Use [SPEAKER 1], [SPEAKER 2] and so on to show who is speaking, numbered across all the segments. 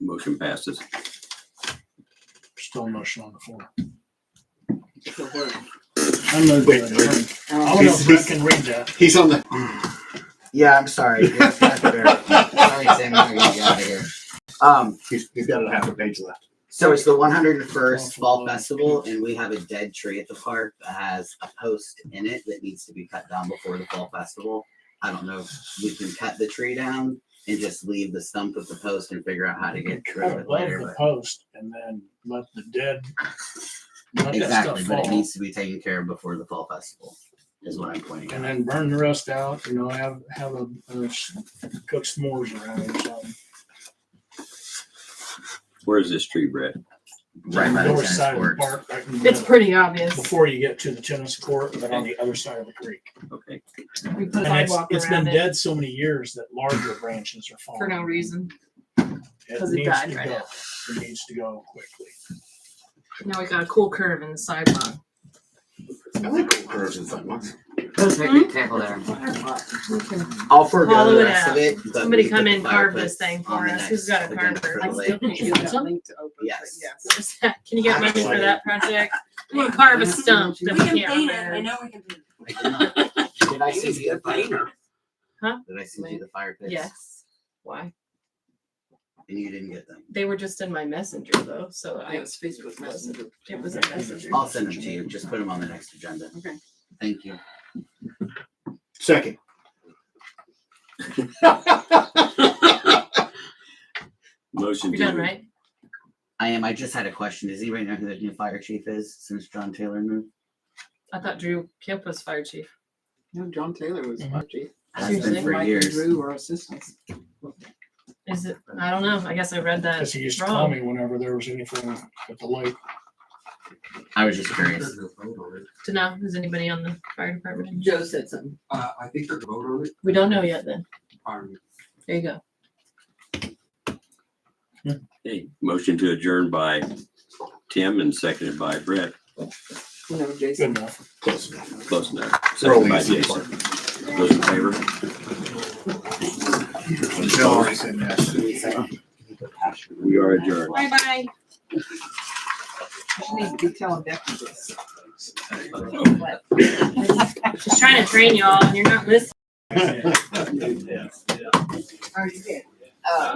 [SPEAKER 1] Motion passes.
[SPEAKER 2] Still a motion on the floor.
[SPEAKER 3] The word.
[SPEAKER 2] I know
[SPEAKER 4] Wait,
[SPEAKER 2] that. I
[SPEAKER 3] Um,
[SPEAKER 5] Oh.
[SPEAKER 2] don't know
[SPEAKER 4] He's-
[SPEAKER 2] if Brett
[SPEAKER 4] he's-
[SPEAKER 2] can read that.
[SPEAKER 4] He's on the.
[SPEAKER 5] Yeah, I'm sorry. Yeah, it's not fair. Sorry, Sam, I'm gonna get out of here. Um,
[SPEAKER 4] He's, he's got a half a page left.
[SPEAKER 5] so it's the 101st Fall Festival, and we have a dead tree at the park that has a post in it that needs to be cut down before the Fall Festival. I don't know if we can cut the tree down and just leave the stump of the post and figure out how to get rid of
[SPEAKER 2] Above
[SPEAKER 5] it later.
[SPEAKER 2] the
[SPEAKER 5] But
[SPEAKER 2] post and then let the dead. let that
[SPEAKER 5] exactly,
[SPEAKER 2] stuff
[SPEAKER 5] but it
[SPEAKER 2] fall,
[SPEAKER 5] needs to be taken care of before the Fall Festival, is what I'm pointing
[SPEAKER 2] And
[SPEAKER 5] out.
[SPEAKER 2] then burn the rest out, you know, have, have a, a s- cook s'mores around it or something.
[SPEAKER 1] Where is this tree, Brett?
[SPEAKER 5] Right by the
[SPEAKER 2] North
[SPEAKER 5] tennis
[SPEAKER 2] side of the
[SPEAKER 5] courts.
[SPEAKER 2] park, right in the
[SPEAKER 3] It's
[SPEAKER 2] middle,
[SPEAKER 3] pretty obvious.
[SPEAKER 2] Before you get to the tennis court, but on the other side of the creek.
[SPEAKER 1] Okay.
[SPEAKER 3] We put a
[SPEAKER 2] And it's,
[SPEAKER 3] sidewalk
[SPEAKER 2] it's been
[SPEAKER 3] around it
[SPEAKER 2] dead so many years that larger branches are falling.
[SPEAKER 3] for no reason.
[SPEAKER 2] It
[SPEAKER 3] 'cause it
[SPEAKER 2] needs
[SPEAKER 3] died
[SPEAKER 2] to
[SPEAKER 3] right
[SPEAKER 2] go.
[SPEAKER 3] now.
[SPEAKER 2] It needs to go quickly.
[SPEAKER 3] Now we got a cool curve in the sidewalk.
[SPEAKER 4] I like cool curves and fun ones.
[SPEAKER 5] Those make me tickle there.
[SPEAKER 3] Somebody
[SPEAKER 5] I'll forego
[SPEAKER 3] Hollow
[SPEAKER 5] the
[SPEAKER 3] it
[SPEAKER 5] rest
[SPEAKER 3] out.
[SPEAKER 5] of it. but we
[SPEAKER 3] come
[SPEAKER 5] put
[SPEAKER 3] in,
[SPEAKER 5] the
[SPEAKER 3] carve
[SPEAKER 5] fireplace
[SPEAKER 3] this thing
[SPEAKER 5] on
[SPEAKER 3] for
[SPEAKER 5] the
[SPEAKER 3] us. Who's
[SPEAKER 5] next
[SPEAKER 3] got a
[SPEAKER 5] agenda for
[SPEAKER 3] carver?
[SPEAKER 6] I
[SPEAKER 5] the
[SPEAKER 6] still
[SPEAKER 5] lake.
[SPEAKER 6] can't get that link to open, but
[SPEAKER 5] Yes.
[SPEAKER 6] yes.
[SPEAKER 3] Can you get money for that project? We want to carve a stump that
[SPEAKER 7] We
[SPEAKER 3] we
[SPEAKER 7] can
[SPEAKER 3] can't
[SPEAKER 7] paint it, I
[SPEAKER 3] remove.
[SPEAKER 7] know we can paint it.
[SPEAKER 5] I did not. Did I send you the fire?
[SPEAKER 3] Huh?
[SPEAKER 5] Did I send you the fire pits?
[SPEAKER 3] Yes. Why?
[SPEAKER 5] And you didn't get them.
[SPEAKER 3] They were just in my messenger though, so
[SPEAKER 6] It
[SPEAKER 3] I,
[SPEAKER 6] was Facebook Messenger.
[SPEAKER 3] it was a messenger.
[SPEAKER 5] I'll send them to you. Just put them on the next agenda.
[SPEAKER 6] Okay.
[SPEAKER 5] Thank you.
[SPEAKER 4] Second.
[SPEAKER 1] Motion.
[SPEAKER 3] You're
[SPEAKER 1] to-
[SPEAKER 3] done, right?
[SPEAKER 5] I am. I just had a question. Does anybody know who the new fire chief is since John Taylor moved?
[SPEAKER 3] I thought Drew Kemp was fire chief.
[SPEAKER 6] No, John Taylor was
[SPEAKER 2] Mhm.
[SPEAKER 6] chief.
[SPEAKER 5] Has
[SPEAKER 3] Seriously?
[SPEAKER 5] been for
[SPEAKER 6] Mike and
[SPEAKER 5] years.
[SPEAKER 6] Drew were assistants.
[SPEAKER 3] Is it, I don't know. I guess I read that
[SPEAKER 2] Cause he used to call
[SPEAKER 3] wrong.
[SPEAKER 2] me whenever there was anything at the lake.
[SPEAKER 5] I was just curious.
[SPEAKER 3] To know, is anybody on the fire department?
[SPEAKER 6] Joe said something.
[SPEAKER 8] Uh, I think they're vote on it,
[SPEAKER 3] We don't know yet then.
[SPEAKER 8] um,
[SPEAKER 3] There you go.
[SPEAKER 1] Okay. Motion to adjourn by Tim and seconded by Brett.
[SPEAKER 6] No, Jason.
[SPEAKER 2] Good enough.
[SPEAKER 4] Close enough.
[SPEAKER 1] Close enough. Seconded by
[SPEAKER 4] Rolling.
[SPEAKER 1] Jason. Those in favor?
[SPEAKER 4] Bill already said yes.
[SPEAKER 1] We are adjourned.
[SPEAKER 7] Bye bye.
[SPEAKER 6] She needs to be telling Becky this.
[SPEAKER 3] Just trying to train y'all and you're not listening.
[SPEAKER 6] Oh, you did. Uh,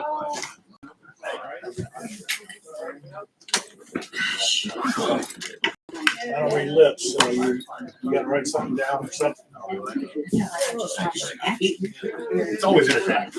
[SPEAKER 2] I don't read lips, so you, you gotta write something down or something.
[SPEAKER 4] It's always entertaining.